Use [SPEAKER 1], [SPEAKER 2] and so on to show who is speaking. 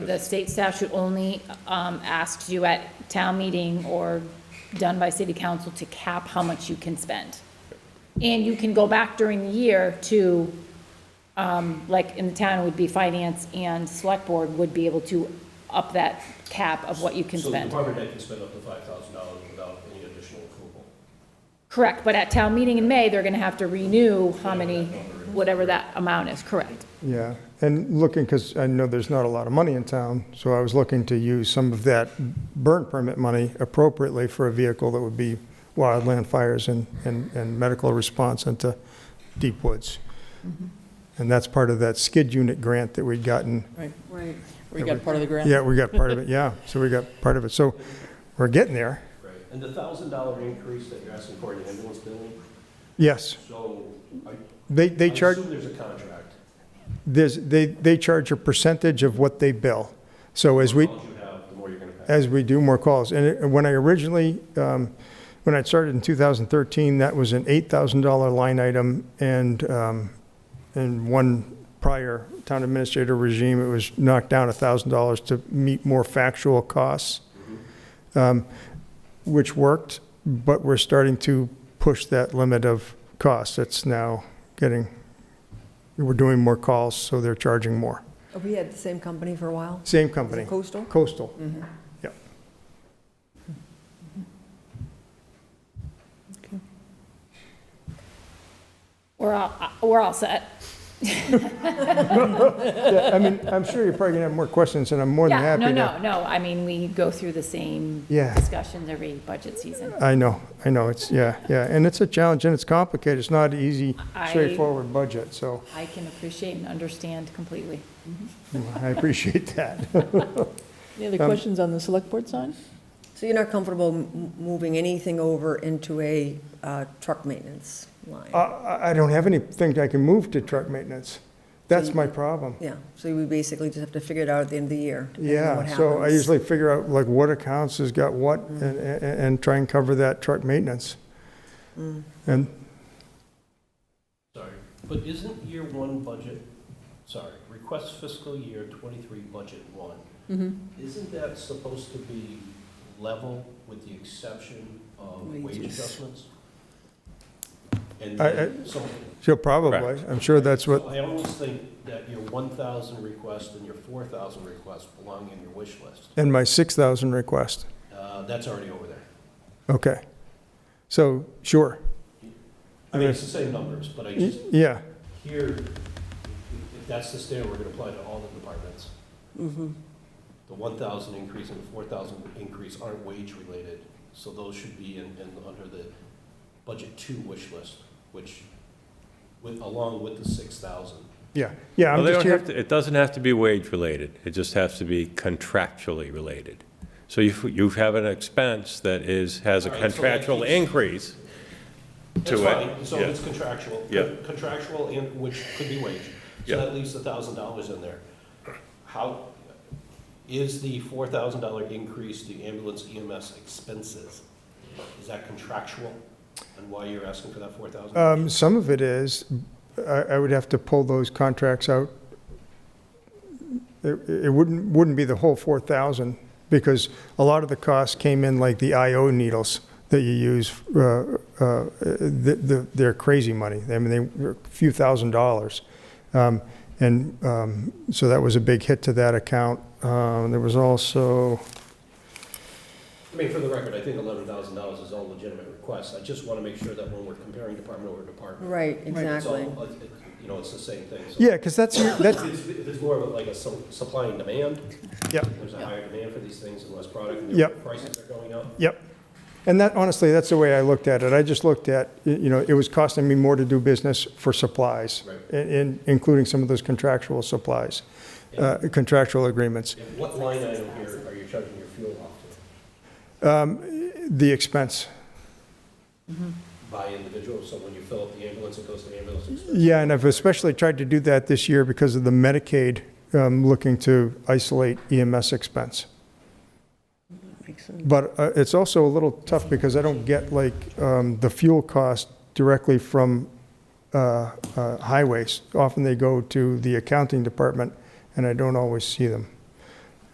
[SPEAKER 1] The state statute only um, asks you at town meeting or done by city council to cap how much you can spend. And you can go back during the year to, um, like, in the town it would be finance and select board would be able to up that cap of what you can
[SPEAKER 2] So the
[SPEAKER 1] spend.
[SPEAKER 2] department head can spend up to five thousand dollars without any additional approval.
[SPEAKER 1] Correct, but at town meeting in May, they're gonna have to renew how many, whatever that amount is, correct.
[SPEAKER 3] Yeah, and looking, because I know there's not a lot of money in town, so I was looking to use some of that burn permit money appropriately for a vehicle that would be wildland fires and, and, and medical response into deep woods. And that's part of that skid unit grant that we'd gotten.
[SPEAKER 4] Right,
[SPEAKER 5] Right.
[SPEAKER 4] we got part of the grant.
[SPEAKER 3] Yeah, we got part of it, yeah, so we got part of it. So we're getting there,
[SPEAKER 2] Right. And the thousand dollar increase that you're asking for in the ambulance billing,
[SPEAKER 3] yes.
[SPEAKER 2] so I.
[SPEAKER 3] They, they charge.
[SPEAKER 2] I assume there's a contract.
[SPEAKER 3] There's, they, they charge a percentage of what they bill. So as we,
[SPEAKER 2] The more calls you have, the more you're gonna pay.
[SPEAKER 3] as we do more calls, and it- when I originally, um, when I started in 2013, that was an $8,000 line item, and um, in one prior town administrator regime, it was knocked down $1,000 to meet more factual costs, um, which worked, but we're starting to push that limit of costs. It's now getting, we're doing more calls, so they're charging more.
[SPEAKER 5] We had the same company for a while.
[SPEAKER 3] Same
[SPEAKER 5] Is
[SPEAKER 3] company,
[SPEAKER 5] it Coastal?
[SPEAKER 3] Coastal. Yep.
[SPEAKER 1] We're all, uh, we're all set.
[SPEAKER 3] I mean, I'm sure you're probably gonna have more questions, and I'm more than
[SPEAKER 1] Yeah,
[SPEAKER 3] happy to.
[SPEAKER 1] no, no, no, I mean, we go through the same
[SPEAKER 3] Yeah.
[SPEAKER 1] discussions every budget season.
[SPEAKER 3] I know, I know, it's, yeah, yeah, and it's a challenge, and it's complicated, it's not an easy,
[SPEAKER 1] I-
[SPEAKER 3] straightforward budget, so
[SPEAKER 1] I can appreciate and understand completely.
[SPEAKER 3] I appreciate that.
[SPEAKER 4] Any other questions on the select board sign?
[SPEAKER 5] So you're not comfortable m- moving anything over into a uh, truck maintenance line?
[SPEAKER 3] I- Uh, I, I don't have anything I can move to truck maintenance, that's my problem.
[SPEAKER 5] Yeah, so we basically just have to figure it out at the end of the year. depending on
[SPEAKER 3] Yeah,
[SPEAKER 5] what
[SPEAKER 3] so I
[SPEAKER 5] happens.
[SPEAKER 3] usually figure out like what accounts has got what,
[SPEAKER 1] Mm.
[SPEAKER 3] and, and, and try and cover that truck maintenance.
[SPEAKER 1] Mm.
[SPEAKER 3] And,
[SPEAKER 2] Sorry, but isn't year one budget, sorry, request fiscal year twenty-three budget one? Isn't that supposed to be level with the exception of wage
[SPEAKER 4] Wages.
[SPEAKER 2] adjustments? And
[SPEAKER 3] I- I-
[SPEAKER 2] then some-
[SPEAKER 3] so probably, I'm sure that's
[SPEAKER 2] so
[SPEAKER 3] what,
[SPEAKER 2] I almost think that your one thousand request and your four thousand request belong in your wish list.
[SPEAKER 3] and my 6,000 request,
[SPEAKER 2] Uh, that's already over there.
[SPEAKER 3] okay. So, sure,
[SPEAKER 2] I mean, it's the same numbers, but I
[SPEAKER 3] Y-
[SPEAKER 2] just,
[SPEAKER 3] yeah,
[SPEAKER 2] here, if if that's the standard, we're gonna apply to all the departments. The one thousand increase and the four thousand increase aren't wage related, so those should be in, in, under the budget two wish list, which, with, along with the six thousand.
[SPEAKER 3] yeah, yeah,
[SPEAKER 6] Well,
[SPEAKER 3] I'm
[SPEAKER 6] they
[SPEAKER 3] just
[SPEAKER 6] don't
[SPEAKER 3] here,
[SPEAKER 6] have to, it doesn't have to be wage-related, it just has to be contractually related. So you, you have an expense that is, has a
[SPEAKER 2] All right, so that
[SPEAKER 6] contractual
[SPEAKER 2] keeps-
[SPEAKER 6] increase to
[SPEAKER 2] That's fine,
[SPEAKER 6] it.
[SPEAKER 2] so
[SPEAKER 6] Yeah.
[SPEAKER 2] it's contractual.
[SPEAKER 6] Yeah.
[SPEAKER 2] Contractual and, which could be wage, so
[SPEAKER 6] Yeah.
[SPEAKER 2] that leaves a thousand dollars in there. How, is the four thousand dollar increase to ambulance EMS expenses, is that contractual? And why you're asking for that four thousand?
[SPEAKER 5] Uh,
[SPEAKER 3] um, some of it is, I, I would have to pull those contracts out. It, it wouldn't, wouldn't be the whole four thousand, because a lot of the costs came in like the IO needles that you use, uh, uh, the, the, they're crazy money, I mean, they were a few thousand dollars. Um, and, um, so that was a big hit to that account. Um, there was also,
[SPEAKER 2] I mean, for the record, I think eleven thousand dollars is all legitimate requests, I just wanna make sure that when we're comparing department over department,
[SPEAKER 5] Right,
[SPEAKER 2] it's all, uh,
[SPEAKER 5] exactly.
[SPEAKER 2] it- it- you know, it's the same thing, so.
[SPEAKER 3] yeah, because that's, that's,
[SPEAKER 2] It's, it's more of like a su- supply and demand.
[SPEAKER 3] yeah.
[SPEAKER 2] There's a higher demand for these things and less product, and their
[SPEAKER 3] Yep.
[SPEAKER 2] prices are going up.
[SPEAKER 3] Yep. And that, honestly, that's the way I looked at it. I just looked at, y- you know, it was costing me more to do business for supplies,
[SPEAKER 2] Right.
[SPEAKER 3] in- in, including some of those contractual supplies, uh, contractual agreements.
[SPEAKER 2] And What line item here are you charging your fuel off to?
[SPEAKER 3] The expense,
[SPEAKER 2] By individual, so when you fill up the ambulance, it goes to the ambulance expense?
[SPEAKER 3] yeah, and I've especially tried to do that this year because of the Medicaid, um, looking to isolate EMS expense. But uh, it's also a little tough because I don't get like um, the fuel cost directly from uh, uh, highways. Often they go to the accounting department and I don't always see them.